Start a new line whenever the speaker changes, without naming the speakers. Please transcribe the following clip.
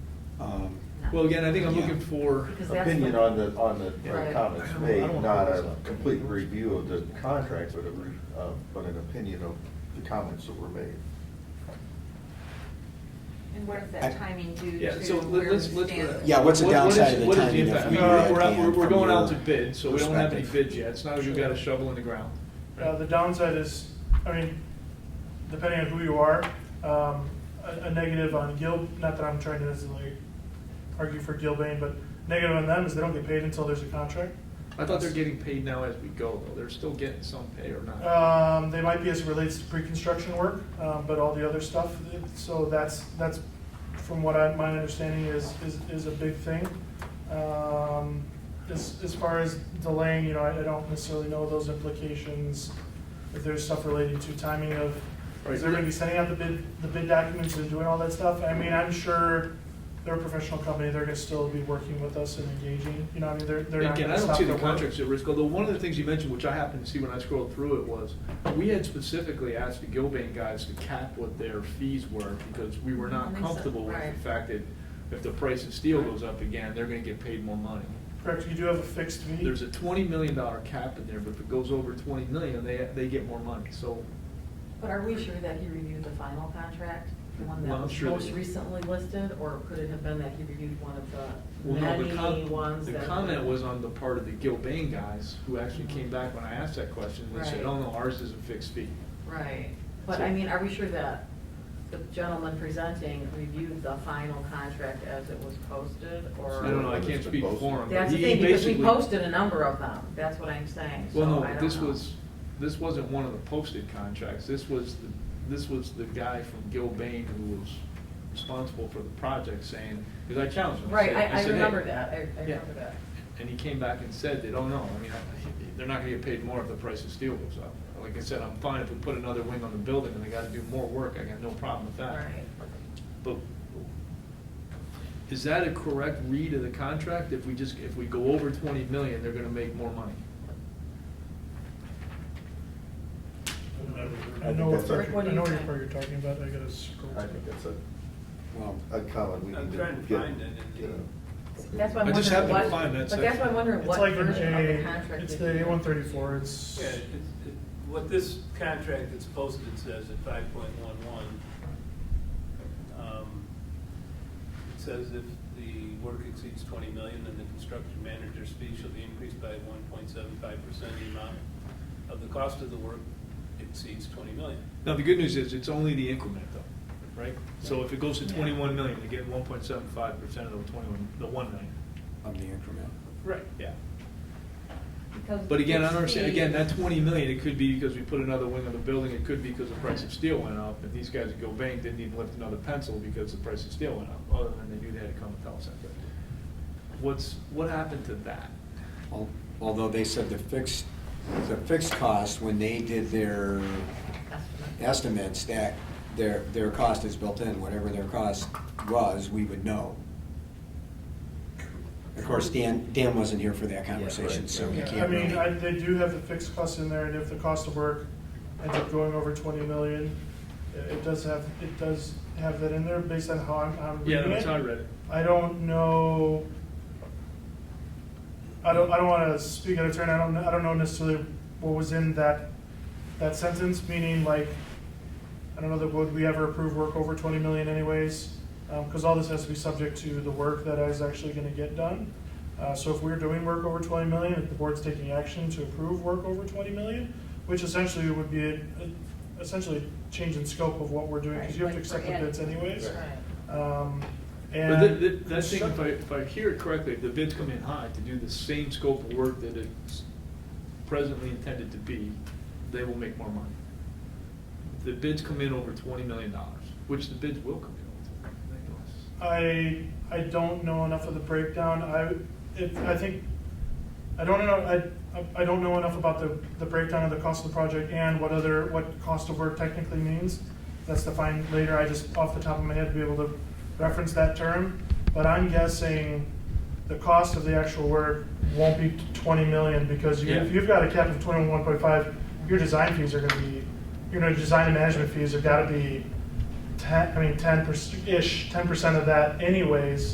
Um,
Well, again, I think I'm looking for,
Because that's the-
Opinion on the, on the
Right.
uh, comments
I don't- I
made,
don't wanna
not
hold this
a
up.
complete review of the contract, but a, re- uh, but an opinion of the comments that were made.
And what is
I-
that timing due
Yeah,
to
so let-
where we
let's- let's-
stand?
Yeah, what's the
What- what is-
downside of the
what is
timing if
impact?
we
No, no,
do
no,
that
We're, out-
again
we're we're
from
going out to
your
bid, so we don't have any
perspective?
bids yet. It's not as you got a shovel in the ground.
Uh, the downside is, I mean, depending on who you are, um, a, a negative on Gil, not that I'm trying to necessarily argue for Gilbane, but negative on them is they don't get paid until there's a contract.
I thought they're getting paid now as we go, though. They're still getting some pay or not.
Um, they might be as it relates to pre-construction work, um, but all the other stuff, so that's, that's, from what I, my understanding is, is, is a big thing. Um, as, as far as delaying, you know, I, I don't necessarily know those implications, if there's stuff related to timing of, is there gonna be sending out the bid, the bid documents and doing all that stuff? I mean, I'm sure they're a professional company, they're gonna still be working with us and engaging, you know, I mean, they're, they're not
Again,
gonna
I don't
stop
see
their
the
work.
contracts at risk, although one of the things you mentioned, which I happened to see when I scrolled through it, was we had specifically asked the Gilbane guys to cap what their fees were because we were
I
not
think so,
comfortable with
right.
the fact that if the price of steel goes up again, they're gonna get paid more money.
Correct, you do have a fixed fee.
There's a twenty million dollar cap in there, but if it goes over twenty million, they, they get more money, so
But are we sure that he reviewed the final contract, the one
Well,
that
I'm
was
sure that
most
he-
recently listed, or could it have been that he reviewed one of the
Well, no, the
many
com-
ones
the
that?
comment was on the part of the Gilbane guys, who actually came back when I asked that question, they said,
Right.
oh no, ours is a fixed fee.
Right, but
So-
I mean, are we sure that the gentleman presenting reviewed the final contract as it was posted, or?
I don't know, I can't speak for him, but
That's the
he
thing, because we
basically-
posted a number of them, that's what I'm saying, so I
Well,
don't know.
no, but this was, this wasn't one of the posted contracts, this was, the- this was the guy from Gilbane who was responsible for the project saying, because I challenged him. I
Right,
said-
I, I
said, "Hey."
remember that, I, I
Yeah.
remember that.
And he came back and said that, oh no, I mean, I- they're not gonna get paid more if the price of steel goes up. Like I said, I'm fine if we put another wing on the building and they gotta do more work, I got no problem with that.
Right.
But is that a correct read of the contract? If we just, if we go over twenty million, they're gonna make more money?
I know, I
Rick, what
do
know
you
what
think?
you're talking about, I gotta scroll.
I think that's a,
Well,
a comment we
I'm
need to get. uh,
trying to find it in the-
you know.
That's why I'm
I
wondering
just happened
what,
to find that
but that's why I'm
section.
wondering
It's
what
like
version
an
of the
A,
contract.
it's
did
the
he-
A one thirty-four, it's.
Yeah, it's, it, what this contract that's posted says at five point one one, it says if the work exceeds twenty million, then the construction manager's fee shall be increased by one point seven five percent the amount of the cost of the work exceeds twenty million.
Now, the good news is, it's only the increment though, right? So if it goes to
Yeah.
twenty-one million, they get one point seven five percent of the twenty-one, the one million.
Of the increment.
Right. Yeah.
Because
But again, I
it's
don't understand,
the-
again, that twenty million, it could be because we put another wing on the building, it could be because the price of steel went up, and these guys at Gilbane didn't even lift another pencil because the price of steel went up, other than they knew they had to come and tell us that. What's, what happened to that?
Al- Although they said the fixed, the fixed cost, when they did their estimates, that their, their cost is built in, whatever their cost was, we would know. Of course, Dan, Dan wasn't here for that conversation, so he
Yeah,
can't
I mean, I,
really.
they do have the fixed costs in there, and if the cost of work ends up going over twenty million, it- it does have, it does have that in there based on how I'm, I'm
Yeah,
reading
that's how I
it.
read it.
I don't know. I don't, I don't wanna speak out of turn, I don't, I don't know necessarily what was in that, that sentence, meaning like, I don't know that would we ever approve work over twenty million anyways, um, cause all this has to be subject to the work that is actually gonna get done. Uh, so if we're doing work over twenty million, if the board's taking action to approve work over twenty million, which essentially would be a, a- essentially a change in scope of what we're doing, cause you have to
Right, like
accept
for
the bids
adding-
anyways.
Right.
Um,
But
and.
the- the- that thing, if I, if I hear it correctly, if the bids come in high to do the same scope of work that it's presently intended to be, they will make more money. If The bids come in over twenty million dollars, which the bids will come in over twenty million dollars.
I, I don't know enough of the breakdown, I, it, I think, I don't know, I, I don't know enough about the, the breakdown of the cost of the project and what other, what cost of work technically means. That's defined later, I just, off the top of my head, be able to reference that term, but I'm guessing the cost of the actual work won't be twenty million, because you,
Yeah.
if you've got a cap of twenty-one point five, your design fees are gonna be, your design and management fees have gotta be ten, I mean, ten percent, ish, ten percent of that anyways.